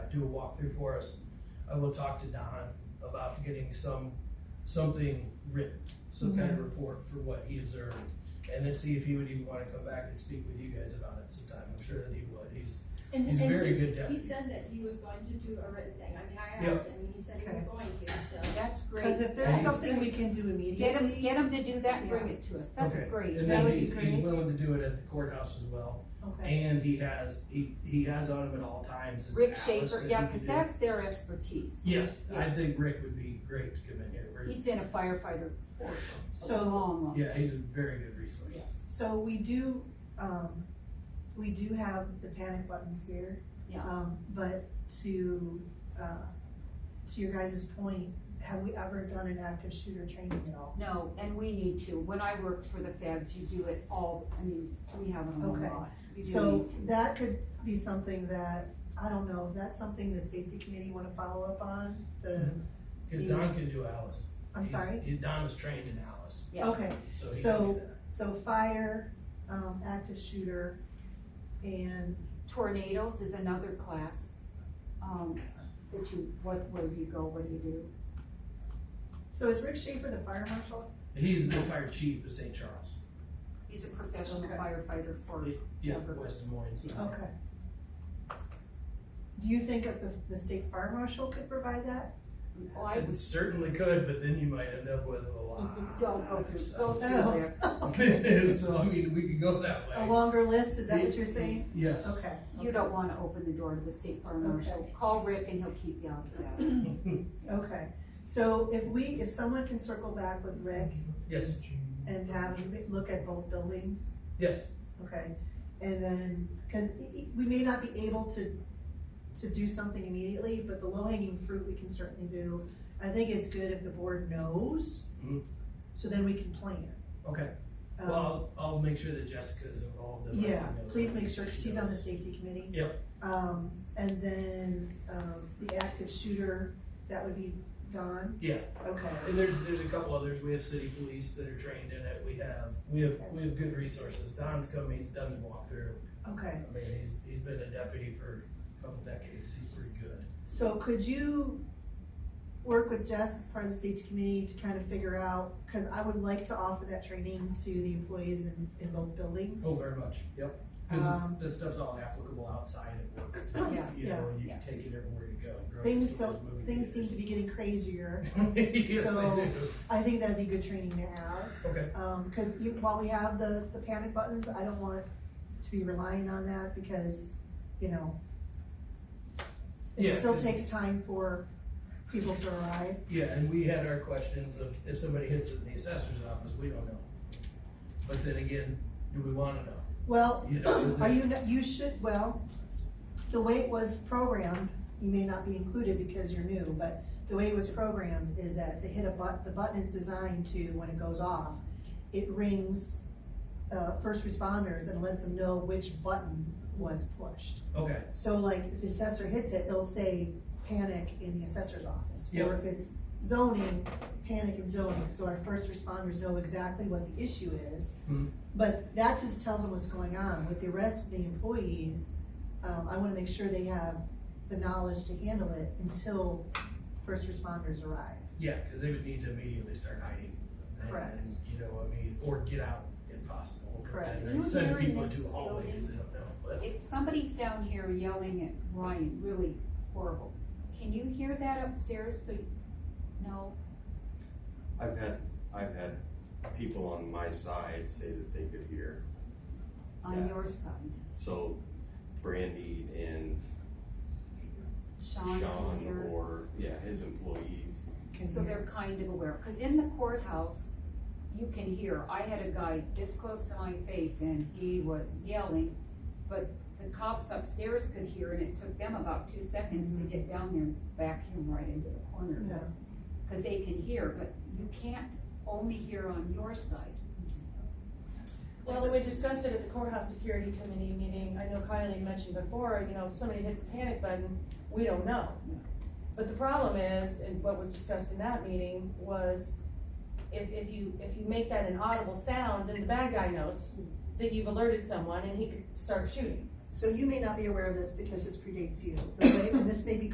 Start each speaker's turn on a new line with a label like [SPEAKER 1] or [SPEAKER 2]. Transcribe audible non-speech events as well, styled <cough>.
[SPEAKER 1] do a walkthrough for us, I will talk to Don about getting some, something written, some kind of report for what he observed. And then see if he would even wanna come back and speak with you guys about it sometime, I'm sure that he would, he's,
[SPEAKER 2] And,
[SPEAKER 1] He's a
[SPEAKER 2] and
[SPEAKER 1] very
[SPEAKER 2] he's-
[SPEAKER 1] good
[SPEAKER 2] He
[SPEAKER 1] deputy.
[SPEAKER 2] said that he was going to do a written thing, I mean, I
[SPEAKER 1] Yeah.
[SPEAKER 2] asked him, and he said he was
[SPEAKER 3] Okay.
[SPEAKER 2] going to, so.
[SPEAKER 4] That's great.
[SPEAKER 3] Cause if there's
[SPEAKER 4] That's
[SPEAKER 3] something we
[SPEAKER 4] great.
[SPEAKER 3] can do
[SPEAKER 4] Get them,
[SPEAKER 3] immediately,
[SPEAKER 4] get them to do that and bring
[SPEAKER 3] Yeah.
[SPEAKER 4] it to us. That's
[SPEAKER 1] okay.
[SPEAKER 4] great.
[SPEAKER 1] And
[SPEAKER 3] That
[SPEAKER 1] then
[SPEAKER 3] would be
[SPEAKER 1] he's, he's
[SPEAKER 3] great.
[SPEAKER 1] willing to do it at the courthouse as well,
[SPEAKER 3] okay,
[SPEAKER 1] and he has, he, he has on him at all times his
[SPEAKER 4] Rick
[SPEAKER 1] atlas
[SPEAKER 4] Schaefer,
[SPEAKER 1] that
[SPEAKER 4] yeah,
[SPEAKER 1] he can
[SPEAKER 4] cause
[SPEAKER 1] do.
[SPEAKER 4] that's their expertise.
[SPEAKER 1] Yes, I
[SPEAKER 4] Yes.
[SPEAKER 1] think Rick would be great to come in here, Rick,
[SPEAKER 4] He's been a firefighter for a
[SPEAKER 3] so.
[SPEAKER 4] long, long.
[SPEAKER 1] yeah, he's a very good resource.
[SPEAKER 4] Yes,
[SPEAKER 3] So we do, um, we do have the panic buttons here.
[SPEAKER 4] Yeah.
[SPEAKER 3] Um, but to, uh, to your guys' point, have we ever done an active shooter training at all?
[SPEAKER 4] no, and we need to. When I worked for the feds, you do it all, I mean, we have it on
[SPEAKER 3] Okay.
[SPEAKER 4] a lot. We do
[SPEAKER 3] So
[SPEAKER 4] need to.
[SPEAKER 3] that could be something that, I don't know, if that's something the safety committee wanna follow up on, the,
[SPEAKER 1] Cause Don can do Alice.
[SPEAKER 3] I'm
[SPEAKER 1] He's-
[SPEAKER 3] sorry?
[SPEAKER 1] he- Don is trained in Alice,
[SPEAKER 4] Yeah.
[SPEAKER 3] Okay,
[SPEAKER 1] so he can
[SPEAKER 3] So-
[SPEAKER 1] do that.
[SPEAKER 3] so fire, um, active shooter, and,
[SPEAKER 4] Tornadoes is another class, um, that you, what, where do you go, what do you do?
[SPEAKER 3] so is Rick Schaefer the fire marshal?
[SPEAKER 1] He's the fire chief of St. Charles,
[SPEAKER 4] He's a professional
[SPEAKER 3] Okay.
[SPEAKER 4] firefighter for,
[SPEAKER 1] yeah,
[SPEAKER 4] Okay.
[SPEAKER 1] West Des Moines.
[SPEAKER 3] Okay. Do you think that the, the state fire marshal could provide that?
[SPEAKER 4] oh, I
[SPEAKER 1] It
[SPEAKER 4] would,
[SPEAKER 1] certainly could, but then you might end up with a lot.
[SPEAKER 4] don't go
[SPEAKER 1] of
[SPEAKER 4] through,
[SPEAKER 1] stuff.
[SPEAKER 4] go through
[SPEAKER 3] Oh. <laughs>
[SPEAKER 1] <laughs>
[SPEAKER 4] there.
[SPEAKER 1] So, I mean, we could go that
[SPEAKER 3] A
[SPEAKER 1] way.
[SPEAKER 3] longer list, Oh, is that what you're saying?
[SPEAKER 1] Yes.
[SPEAKER 3] Okay.
[SPEAKER 4] You don't wanna open the door to the state fire marshal.
[SPEAKER 3] Okay.
[SPEAKER 4] Call Rick and he'll keep you out of that.
[SPEAKER 3] Okay, so if we, if someone can circle back with Rick
[SPEAKER 1] <laughs> Yes,
[SPEAKER 3] and have him look at both buildings,
[SPEAKER 1] yes,
[SPEAKER 3] Okay, and then, because we may not be able to, to do something immediately, but the low hanging fruit we can certainly do. I think it's good if the board knows,
[SPEAKER 1] Mhm.
[SPEAKER 3] so then we can plan.
[SPEAKER 1] okay.
[SPEAKER 3] Um,
[SPEAKER 1] Well, I'll, I'll make sure that Jessica's involved. in letting
[SPEAKER 3] Yeah,
[SPEAKER 1] you know
[SPEAKER 3] please
[SPEAKER 1] that
[SPEAKER 3] make sure,
[SPEAKER 1] she
[SPEAKER 3] she's on the
[SPEAKER 1] knows.
[SPEAKER 3] safety committee.
[SPEAKER 1] Yep.
[SPEAKER 3] Um, and then, um, the active shooter, that would be Don,
[SPEAKER 1] Yeah,
[SPEAKER 3] okay,
[SPEAKER 1] and there's, there's a couple others. We have city police that are trained in it. We have, we have, we have good resources. Don's come, he's done the walkthrough.
[SPEAKER 3] okay.
[SPEAKER 1] I mean, he's, he's been a deputy for a couple decades, he's pretty good.
[SPEAKER 3] So could you work with Jess as part of the safety committee to kind of figure out, because I would like to offer that training to the employees in, in both buildings.
[SPEAKER 1] Oh, very much, yep. Cause
[SPEAKER 3] Um,
[SPEAKER 1] it's, this stuff's all applicable outside of
[SPEAKER 3] <coughs>
[SPEAKER 1] work,
[SPEAKER 4] Yeah.
[SPEAKER 1] you know, and you
[SPEAKER 4] Yeah.
[SPEAKER 1] can take it everywhere you go. grocery
[SPEAKER 3] Things
[SPEAKER 1] stores,
[SPEAKER 3] don't-
[SPEAKER 1] movie
[SPEAKER 3] Things seem
[SPEAKER 1] theaters.
[SPEAKER 3] to be getting crazier.
[SPEAKER 1] <laughs> Yes, they do,
[SPEAKER 3] I think that'd be good training to have,
[SPEAKER 1] okay,
[SPEAKER 3] um, because you, while we have the, the panic buttons, I don't want to be relying on that because, you know,
[SPEAKER 1] Yeah,
[SPEAKER 3] it still
[SPEAKER 1] 'cause-
[SPEAKER 3] takes time for people to arrive.
[SPEAKER 1] yeah, and we had our questions of if somebody hits it in the assessor's office, we don't know. But then again, do we wanna know?
[SPEAKER 3] Well,
[SPEAKER 1] You know, is
[SPEAKER 3] <clears throat> are
[SPEAKER 1] it-
[SPEAKER 3] you, not- you should, well, the way it was programmed, you may not be included because you're new, but the way it was programmed is that if they hit a button, the button is designed to, when it goes off, it rings, uh, first responders and lets them know which button was pushed.
[SPEAKER 1] Okay,
[SPEAKER 3] So like, if the assessor hits it, it'll say panic in the assessor's office. Or
[SPEAKER 1] Yeah.
[SPEAKER 3] if it's zoning, panic and zoning, so our first responders know exactly what the issue is.
[SPEAKER 1] Mhm.
[SPEAKER 3] But that just tells them what's going on. With the rest of the employees, um, I wanna make sure they have the knowledge to handle it until first responders arrive.
[SPEAKER 1] yeah, cause they would need to immediately start hiding. And,
[SPEAKER 3] Correct.
[SPEAKER 1] You know, I mean, or get out if possible. but
[SPEAKER 3] Correct.
[SPEAKER 1] then
[SPEAKER 4] You
[SPEAKER 1] Send
[SPEAKER 4] were in
[SPEAKER 1] people
[SPEAKER 4] this
[SPEAKER 1] to a hallway,
[SPEAKER 4] building.
[SPEAKER 1] 'cause they don't know, but,
[SPEAKER 4] If somebody's down here yelling at Ryan really horrible, can you hear that upstairs so, you- no?
[SPEAKER 5] I've had, I've had people on my side say that they could hear,
[SPEAKER 4] On
[SPEAKER 5] Yeah.
[SPEAKER 4] your side,
[SPEAKER 5] so Brandy and
[SPEAKER 4] Sean can
[SPEAKER 5] Sean
[SPEAKER 4] hear,
[SPEAKER 5] or, yeah, his employees.
[SPEAKER 4] so they're kind of aware, cause in the courthouse, you can hear, I had a guy this close to my face and he was yelling, but the cops upstairs could hear and it took them about two seconds to get down there and vacuum right into the corner.
[SPEAKER 3] Yeah.
[SPEAKER 4] Cause they can hear, but you can't only hear on your side.
[SPEAKER 6] Well, we discussed it at the courthouse security committee meeting, I know Kylie mentioned before, you know, if somebody hits a panic button, we don't know.
[SPEAKER 4] Yeah.
[SPEAKER 6] But the problem is, and what was discussed in that meeting, was if, if you, if you make that an audible sound, then the bad guy knows that you've alerted someone and he could start shooting.
[SPEAKER 3] So you may not be aware of this because this predates you. The way, and this may be